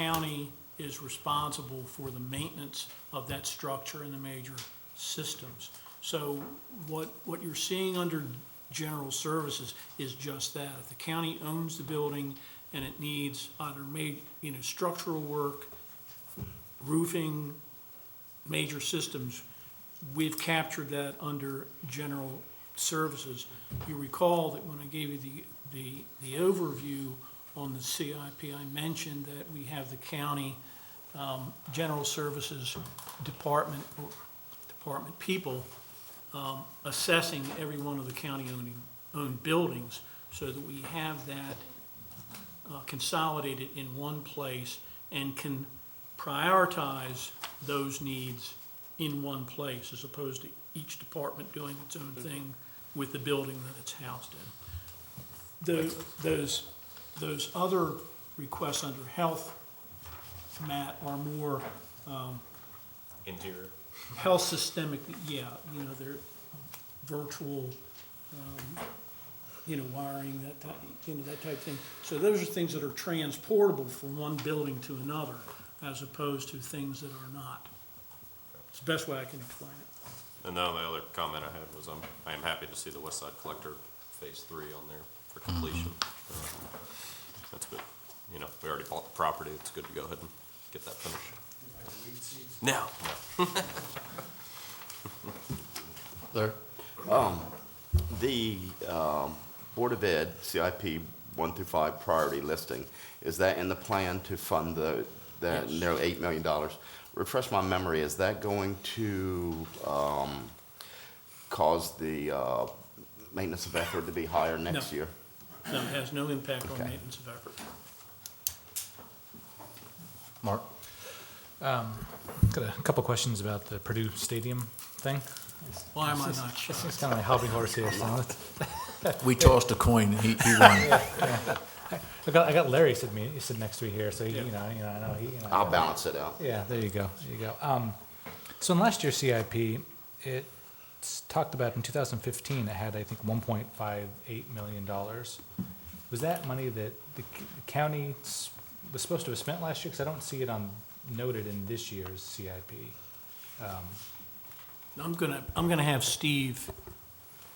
county is responsible for the maintenance of that structure and the major systems. So what, what you're seeing under general services is just that. If the county owns the building and it needs either made, you know, structural work, roofing, major systems, we've captured that under general services. You recall that when I gave you the, the, the overview on the CIP, I mentioned that we have the county, um, general services department, or department people, um, assessing every one of the county owning, owned buildings so that we have that uh, consolidated in one place and can prioritize those needs in one place as opposed to each department doing its own thing with the building that it's housed in. Tho- Those, those other requests under health, Matt, are more Interior. health systemic, yeah, you know, they're virtual, um, you know, wiring, that type, you know, that type thing. So those are things that are transportable from one building to another, as opposed to things that are not. It's the best way I can explain it. And then my other comment I had was I'm, I am happy to see the West Side Collector Phase Three on there for completion. Uh, That's good. You know, we already bought the property. It's good to go ahead and get that finished. Now, There. Um, The um, Board of Ed, CIP 1 through 5 priority listing, is that in the plan to fund the, the nearly $8 million? Refresh my memory, is that going to um, cause the uh, maintenance of effort to be higher next No. year? No, it has no impact on Okay. maintenance of effort. Mark? Got a couple questions about the Purdue Stadium thing. Why am I not sure? It's kind of my hobby horse here. so it's- We tossed a coin, he, he won. I got, I got Larry sitting me, sitting next to me here, so he, Yeah. you know, you know, I know he. You know, I'll balance it out. Yeah, there you go, there you go. Um, so in last year's CIP, it talked about in 2015, it had I think 1.58 million dollars. Was that money that the c- county s- was supposed to have spent last year? Because I don't see it on noted in this year's CIP. I'm gonna, I'm gonna have Steve.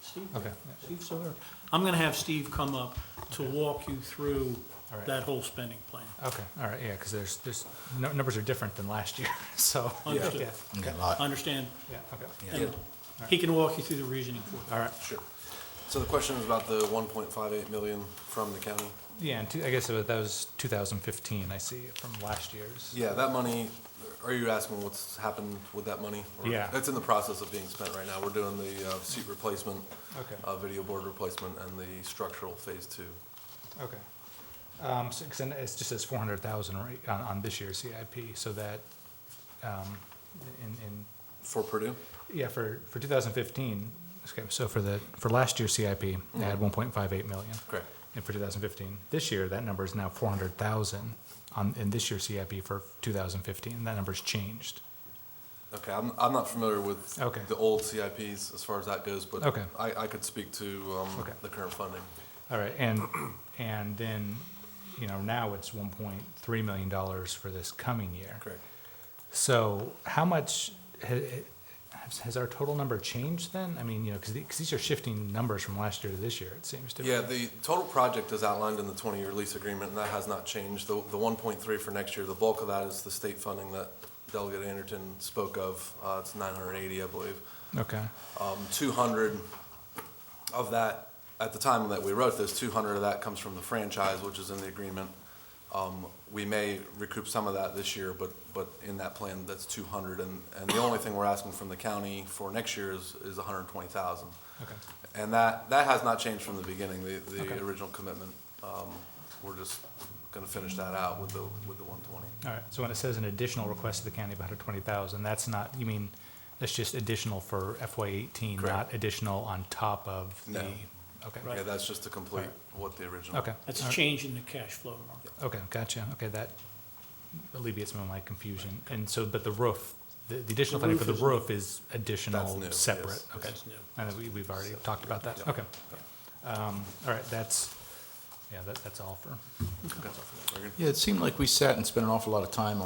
Steve? Okay. Steve Sawyer. I'm gonna have Steve come up to walk you through All right. that whole spending plan. Okay, all right, yeah, because there's, there's, nu- numbers are different than last year, so. Understood. yeah, Got a I lot. understand Yeah, okay, And He can walk you through the reasoning for it. all right. Sure. So the question was about the 1.58 million from the county? Yeah, and two, I guess it was- that was 2015, I see, from last year's. Yeah, that money, are you asking what's happened with that money? Or- Yeah. It's in the process of being spent right now. We're doing the uh, seat replacement, Okay. uh, video board replacement, and the structural phase two. Okay. Um, so, 'cause I know it's just says 400,000 right, on, on this year's CIP, so that, um, in, in For Purdue? Yeah, for, for 2015, okay, so for the, for last year's CIP, it had 1.58 million. Correct. And for 2015, this year, that number is now 400,000 on, in this year's CIP for 2015, that number's changed. Okay, I'm, I'm not familiar with Okay. the old CIPs as far as that goes, but Okay. I, I could speak to um, Okay. the current funding. All right, and, and then, you know, now it's 1.3 million dollars for this coming year. Correct. So how much, ha- has, has our total number changed then? I mean, you know, because these are shifting numbers from last year to this year, it seems to me. Yeah, the total project is outlined in the twenty-year lease agreement, and that has not changed. The, the one point three for next year, the bulk of that is the state funding that Delegate Anderton spoke of. Uh, it's nine hundred and eighty, I believe. Okay, Um, two hundred of that, at the time that we wrote this, two hundred of that comes from the franchise, which is in the agreement. Um, we may recoup some of that this year, but, but in that plan, that's two hundred, and, and the only thing we're asking from the county for next year is, is hundred and twenty thousand. okay. And that, that has not changed from the beginning, the, Okay. the original commitment. Um, We're just gonna finish that out with the, with the one twenty. All right, so when it says an additional request to the county of hundred twenty thousand, that's not, you mean, that's just additional for FY eighteen, Correct. not additional on top of the? No. Okay, Yeah, that's just to complete what the original. okay. That's all a right, change in the cash flow, Mark. Okay, gotcha, okay, that alleviates some of my confusion, and so, but the roof, the, the additional The funding for the roof is- roof is That's additional, new, yes, separate, okay. That's new. And we, we've already talked about that, okay. Um, all right, that's, yeah, that, that's all for. Yeah, it seemed like we sat and spent an awful lot of time on.